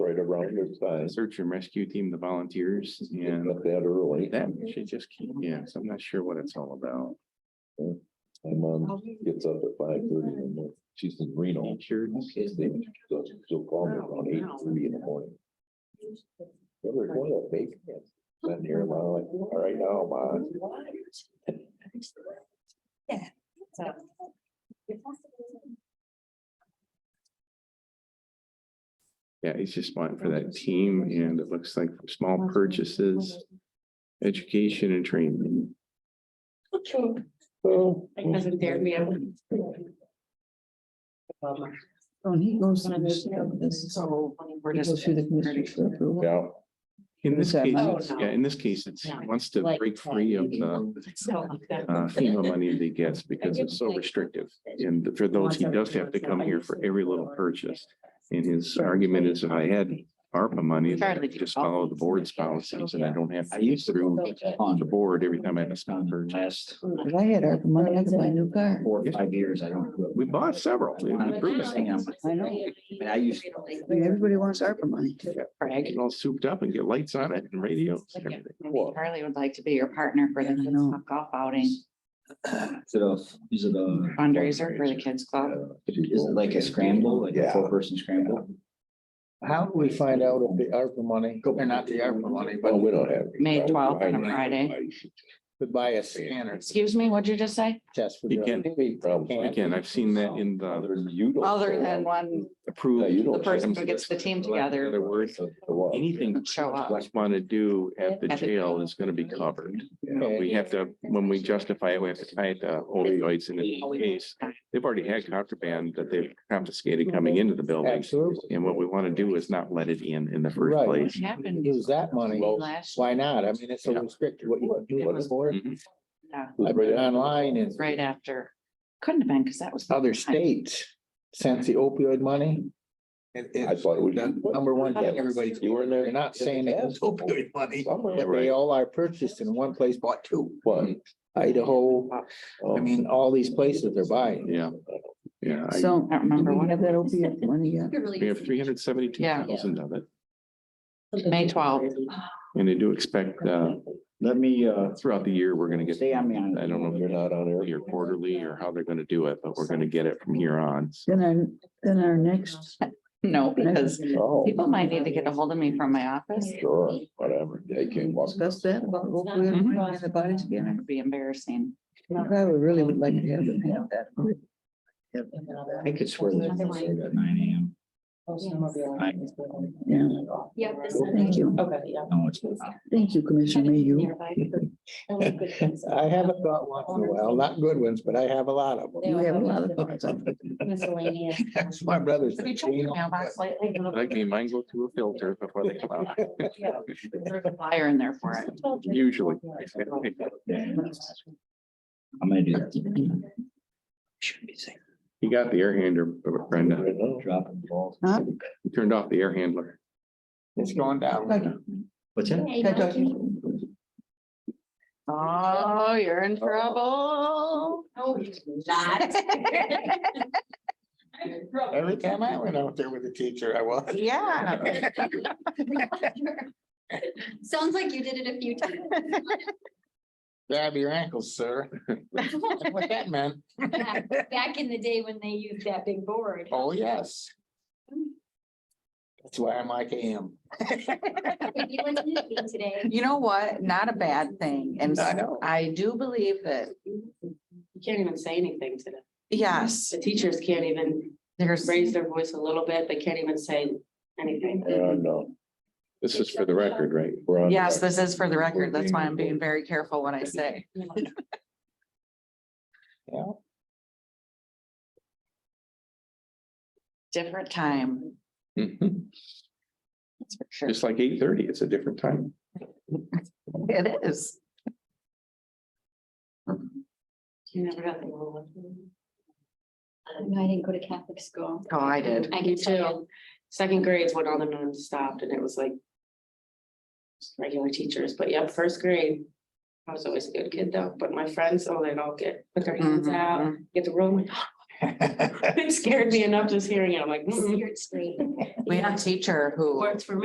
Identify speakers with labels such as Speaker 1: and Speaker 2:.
Speaker 1: right around this time.
Speaker 2: uh, search and rescue team, the volunteers,
Speaker 1: It's
Speaker 2: and
Speaker 1: Not that early.
Speaker 2: that should just keep, yeah, so I'm not sure what it's all about.
Speaker 1: My mom um, gets up at five thirty in the morning. She's in Reno.
Speaker 2: Insurance.
Speaker 1: Sleep. So she'll call me around eight thirty in the morning. Yeah, we're going to bake. Sitting here, I'm like, all right now, mom.
Speaker 3: So.
Speaker 2: Yeah, he's just wanting for that team, and it looks like for small purchases, education and training.
Speaker 1: So. mm.
Speaker 3: My cousin dared me.
Speaker 4: Oh, and he goes through this, this,
Speaker 3: So. We're
Speaker 4: he goes through the commissioners for approval.
Speaker 1: Yeah,
Speaker 2: In this
Speaker 4: Okay.
Speaker 2: case,
Speaker 3: Oh,
Speaker 2: it's-
Speaker 3: no.
Speaker 2: yeah, in this case, it's, he wants to break free of the
Speaker 3: So.
Speaker 2: uh, FEMA money that he gets because it's so restrictive. And for those, he does have to come here for every little purchase. And his argument is if I had ARPA money, then I could just follow the board's policies and I don't have to go through the board every time I have a small purchase.
Speaker 5: Last
Speaker 4: If I had ARPA money, I could buy a new car.
Speaker 5: four or five years, I don't. do it.
Speaker 2: We bought several. We've improved it.
Speaker 4: I know.
Speaker 5: But I used.
Speaker 4: I mean, Everybody wants ARPA money.
Speaker 2: Get it all souped up and get lights on it and radios and everything.
Speaker 1: Well-
Speaker 3: Charlie would like to be your partner for the
Speaker 4: Yeah, I
Speaker 3: Kids
Speaker 4: know.
Speaker 3: Club golf outing
Speaker 5: Is it a, is it a,
Speaker 3: fundraiser for the kids club.
Speaker 5: is it like a scramble, like a
Speaker 1: Yeah.
Speaker 5: four person scramble?
Speaker 6: How do we find out if the ARPA money, or not the ARPA money,
Speaker 1: Well,
Speaker 6: but
Speaker 1: Oh, we don't have.
Speaker 3: May 12th on a Friday.
Speaker 6: to buy a scanner
Speaker 3: Excuse me, what'd you just say?
Speaker 6: test? for
Speaker 2: You
Speaker 6: drugs?
Speaker 2: can't-
Speaker 1: Again,
Speaker 2: Again, I've seen that in the
Speaker 1: You don't.
Speaker 3: Other than one,
Speaker 1: Yeah, you
Speaker 2: approved.
Speaker 1: don't-
Speaker 3: the person who gets the team together
Speaker 2: Other words,
Speaker 1: Well,
Speaker 2: anything
Speaker 3: show
Speaker 2: I
Speaker 3: up.
Speaker 2: just want to do at the jail is going to be covered.
Speaker 6: Okay.
Speaker 2: We have to, when we justify it, we have to tie it to opioids in
Speaker 3: Oh,
Speaker 2: this case. They've already had contraband that they've confiscated coming into the building.
Speaker 6: Absolutely.
Speaker 2: And what we want to do is not let it in in the first
Speaker 6: Right.
Speaker 3: What
Speaker 2: place.
Speaker 3: happened
Speaker 6: Use that money.
Speaker 3: last?
Speaker 6: Why not? I mean, it's so restricted what you can do with it for.
Speaker 2: Mhm.
Speaker 3: Yeah,
Speaker 6: I've been online
Speaker 3: it's
Speaker 6: and
Speaker 3: uh, right after. Couldn't have been because that was.
Speaker 6: other states since the opioid money. It,
Speaker 1: I
Speaker 6: it's
Speaker 1: thought we-
Speaker 6: the number one thing everybody's.
Speaker 1: You were in there?
Speaker 6: They're not saying it was opioid money,
Speaker 1: Somewhere,
Speaker 6: but they
Speaker 1: right?
Speaker 6: all are purchased in one place, bought two.
Speaker 1: But,
Speaker 6: Idaho, Mm-hmm. I
Speaker 1: um,
Speaker 6: mean, all these places are buying.
Speaker 2: Yeah. Yeah. I-
Speaker 4: So,
Speaker 3: I don't
Speaker 4: do
Speaker 3: remember
Speaker 4: we
Speaker 3: what.
Speaker 4: have that opioid money yet?
Speaker 2: We have three hundred seventy-two thousand of it
Speaker 3: May twelfth.
Speaker 2: and they do expect, uh,
Speaker 5: Let me, uh,
Speaker 2: throughout the year, we're going to get.
Speaker 5: Stay on me on-
Speaker 2: I don't know if
Speaker 1: you're not on air.
Speaker 2: yearly or quarterly or how they're gonna do it, but we're gonna get it from here on. So
Speaker 4: Then our, then our next,
Speaker 3: No, because
Speaker 1: Oh,
Speaker 3: people might need to get a hold of me from my office.
Speaker 1: sure, whatever. They can walk.
Speaker 4: discuss that, about opioid
Speaker 3: Mm-hmm.
Speaker 4: money and the body scanner.
Speaker 3: It would be embarrassing.
Speaker 4: I would really would like to have them have that.
Speaker 5: I could swear that it's started at nine
Speaker 4: Oh, Yeah,
Speaker 7: Yeah.
Speaker 4: thank you.
Speaker 7: Okay, yeah.
Speaker 5: AM. No, it's not.
Speaker 4: Thank you, Commissioner Mayhew.
Speaker 6: I haven't got one in a while, not good ones, but I have a lot of them.
Speaker 4: You have a lot of thoughts on it.
Speaker 7: Miscellaneous.
Speaker 6: That's my brother's.
Speaker 3: Have you checked your mailbox lately?
Speaker 2: like me, mine go through a filter before they come out.
Speaker 3: There's a flyer in there for it.
Speaker 2: Usually.
Speaker 5: I'm gonna do that.
Speaker 2: He got the air handler, Brenda.
Speaker 1: Right now.
Speaker 5: Drop the ball.
Speaker 4: Huh?
Speaker 2: He turned off the air handler.
Speaker 6: It's going
Speaker 4: Like,
Speaker 6: down.
Speaker 5: What's that?
Speaker 3: Oh, you're in trouble.
Speaker 7: No, he's not.
Speaker 6: Every time I went out there with the teacher, I was.
Speaker 3: Yeah.
Speaker 7: Sounds like you did it a few times.
Speaker 6: Grab your ankles, sir. That's What that meant.
Speaker 7: Back in the day when they used that big board.
Speaker 6: Oh, yes. That's why I'm like I am.
Speaker 7: If you went to the meeting Today.
Speaker 3: You know what? Not a bad thing. And
Speaker 6: I know.
Speaker 3: I do believe that,
Speaker 8: You can't even say anything to them.
Speaker 3: yes,
Speaker 8: The teachers can't even
Speaker 3: there's.
Speaker 8: raise their voice a little bit. They can't even say anything.
Speaker 1: Yeah, no,
Speaker 2: This is for the record, right?
Speaker 1: we're on.
Speaker 3: Yes, this is for the record. That's why I'm being very careful what I say.
Speaker 6: Yeah.
Speaker 3: Different time,
Speaker 2: Mhm.
Speaker 3: that's for sure.
Speaker 2: Just like eight thirty, it's a different time.
Speaker 3: It is.
Speaker 8: You never got the rule.
Speaker 7: No, I didn't go to Catholic school.
Speaker 3: Oh, I did.
Speaker 7: I can tell.
Speaker 8: too. Second grades when all the nuns stopped and it was like just regular teachers, but yeah, first grade. I was always a good kid though, but my friends, oh, they'd all get, put their hands out,
Speaker 3: Mhm.
Speaker 8: get the room.
Speaker 3: It scared me enough just hearing it. I'm like, mm-mm.
Speaker 8: Scared straight. mm-hmm.
Speaker 7: We had a teacher who.
Speaker 3: works for me.